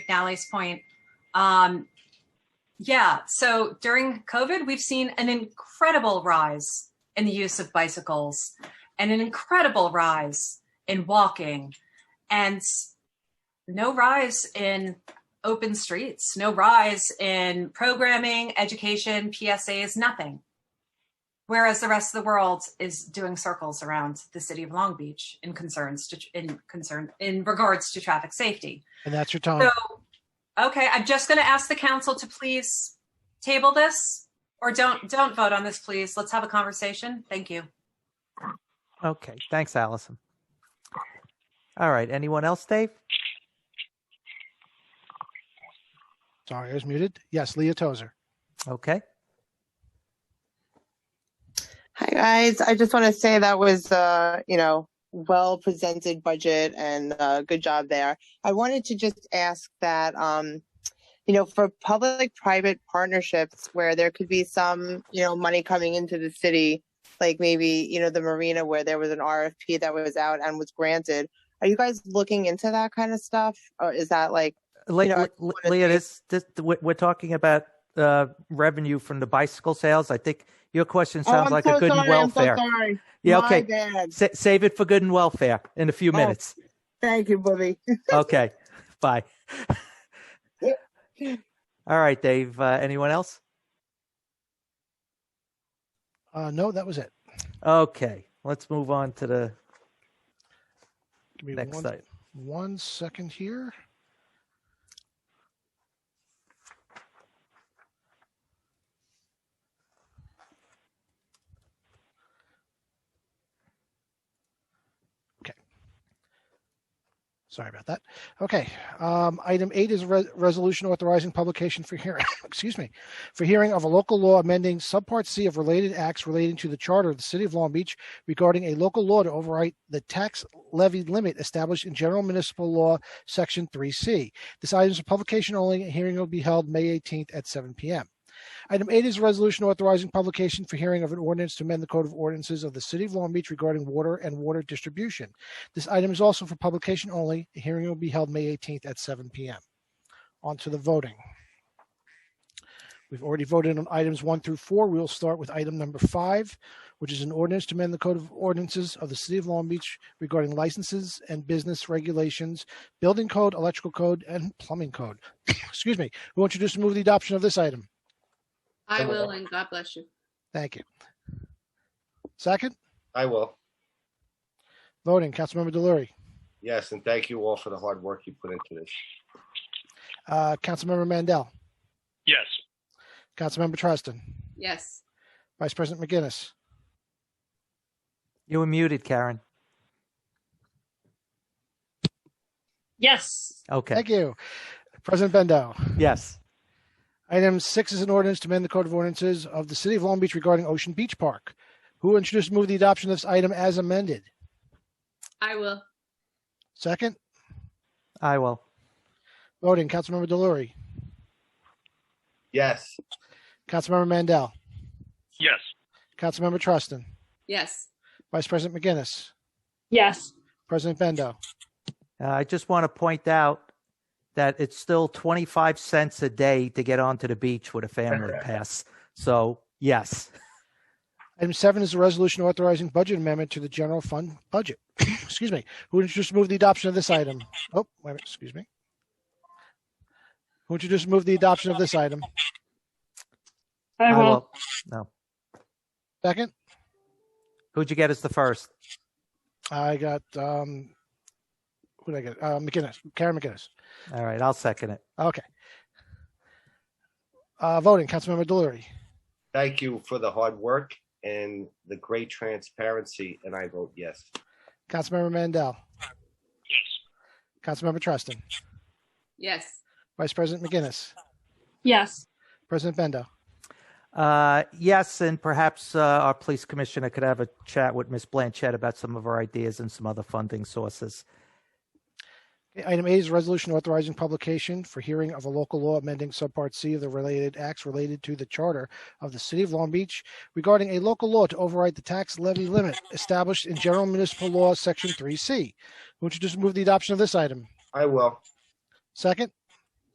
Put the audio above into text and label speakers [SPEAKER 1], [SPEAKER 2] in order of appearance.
[SPEAKER 1] McNally's point. Um, yeah, so during COVID, we've seen an incredible rise in the use of bicycles and an incredible rise in walking and no rise in open streets, no rise in programming, education, PSAs, nothing. Whereas the rest of the world is doing circles around the city of Long Beach in concerns to, in concern in regards to traffic safety.
[SPEAKER 2] And that's your time.
[SPEAKER 1] So, okay, I'm just going to ask the council to please table this or don't don't vote on this, please. Let's have a conversation. Thank you.
[SPEAKER 3] Okay, thanks, Allison. All right, anyone else, Dave?
[SPEAKER 2] Sorry, I was muted. Yes, Leah Tozer.
[SPEAKER 3] Okay,
[SPEAKER 4] Hi guys, I just want to say that was uh, you know, well presented budget and uh, good job there. I wanted to just ask that um, you know, for public private partnerships where there could be some, you know, money coming into the city, like maybe, you know, the marina where there was an RFP that was out and was granted. Are you guys looking into that kind of stuff? Or is that like
[SPEAKER 3] Le-
[SPEAKER 4] You know, I
[SPEAKER 3] Le-
[SPEAKER 4] just
[SPEAKER 3] Le-
[SPEAKER 4] wanna
[SPEAKER 3] Leah,
[SPEAKER 4] say-
[SPEAKER 3] this, this we're we're talking about uh, revenue from the bicycle sales. I think your question sounds
[SPEAKER 4] Oh, I'm
[SPEAKER 3] like
[SPEAKER 4] so
[SPEAKER 3] a good
[SPEAKER 4] sorry,
[SPEAKER 3] and welfare.
[SPEAKER 4] I'm so sorry.
[SPEAKER 3] yeah,
[SPEAKER 4] My
[SPEAKER 3] okay.
[SPEAKER 4] bad.
[SPEAKER 3] Sa- save it for good and welfare in a few
[SPEAKER 4] Oh.
[SPEAKER 3] minutes.
[SPEAKER 4] Thank you, Bobby.
[SPEAKER 3] Okay, bye. All right, Dave. Uh, anyone else?
[SPEAKER 2] Uh, no, that was it.
[SPEAKER 3] Okay, let's move on to the
[SPEAKER 2] Give me
[SPEAKER 3] next
[SPEAKER 2] one,
[SPEAKER 3] item.
[SPEAKER 2] one second here. Okay. Sorry about that. Okay. Um, item eight is a re- resolution authorizing publication for hearing, excuse me, for hearing of a local law amending subpart C of related acts relating to the charter of the city of Long Beach regarding a local law to override the tax levy limit established in General Municipal Law, Section 3C. This item is for publication only. A hearing will be held May 18th at 7 p.m. Item 8 is a resolution authorizing publication for hearing of an ordinance to amend the Code of Ordinances of the City of Long Beach regarding water and water distribution. This item is also for publication only. A hearing will be held May 18th at 7 p.m. On to the voting. We've already voted on items 1 through 4. We will start with item number 5 which is an ordinance to amend the Code of Ordinances of the City of Long Beach regarding licenses and business regulations, building code, electrical code, and plumbing code. Excuse me. Who wants you just to move the adoption of this item?
[SPEAKER 5] I
[SPEAKER 6] Some of
[SPEAKER 5] will,
[SPEAKER 6] them.
[SPEAKER 5] and God bless you.
[SPEAKER 2] Thank you. Second,
[SPEAKER 6] I will.
[SPEAKER 2] voting, Councilmember Delury,
[SPEAKER 6] Yes, and thank you all for the hard work you put into this.
[SPEAKER 2] uh, Councilmember Mandel,
[SPEAKER 7] Yes.
[SPEAKER 2] Councilmember Treston,
[SPEAKER 5] Yes,
[SPEAKER 2] Vice President McGinnis,
[SPEAKER 3] You were muted, Karen.
[SPEAKER 8] Yes,
[SPEAKER 3] Okay.
[SPEAKER 2] thank you. President Bendo.
[SPEAKER 3] Yes.
[SPEAKER 2] Item six is an ordinance to amend the Code of Ordinances of the City of Long Beach regarding Ocean Beach Park. Who introduced to move the adoption of this item as amended?
[SPEAKER 5] I will.
[SPEAKER 2] Second,
[SPEAKER 3] I will.
[SPEAKER 2] voting, Councilmember Delury,
[SPEAKER 6] Yes,
[SPEAKER 2] Councilmember Mandel,
[SPEAKER 7] Yes.
[SPEAKER 2] Councilmember Trustin,
[SPEAKER 5] Yes,
[SPEAKER 2] Vice President McGinnis,
[SPEAKER 8] yes,
[SPEAKER 2] President Bendo.
[SPEAKER 3] Uh, I just want to point out that it's still 25 cents a day to get onto the beach with a family pass. So, yes.
[SPEAKER 2] Item seven is a resolution authorizing budget amendment to the general fund budget. excuse me. Who would introduce move the adoption of this item? Oh, wait, a minute, excuse me. Who would introduce move the adoption of this item?
[SPEAKER 8] I will.
[SPEAKER 3] No.
[SPEAKER 2] Second,
[SPEAKER 3] Who'd you get as the first?
[SPEAKER 2] I got um, who did I get? Uh, McGinnis, Karen McGinnis.
[SPEAKER 3] All right. I'll second it.
[SPEAKER 2] Okay. Uh, voting, Councilmember Delury,
[SPEAKER 6] thank you for the hard work and the great transparency, and I vote yes.
[SPEAKER 2] Councilmember Mandel,
[SPEAKER 7] Yes.
[SPEAKER 2] Councilmember Trustin,
[SPEAKER 5] yes,
[SPEAKER 2] Vice President McGinnis,
[SPEAKER 8] Yes,
[SPEAKER 2] President Bendo.
[SPEAKER 3] Uh, yes. And perhaps uh, our police commissioner could have a chat with Miss Blanchette about some of our ideas and some other funding sources.
[SPEAKER 2] Item eight is a resolution authorizing publication for hearing of a local law amending subpart C of the related acts related to the charter of the city of Long Beach regarding a local law to override the tax levy limit established in general municipal law, section three C. Would you just move the adoption of this item?
[SPEAKER 6] I will.
[SPEAKER 2] Second,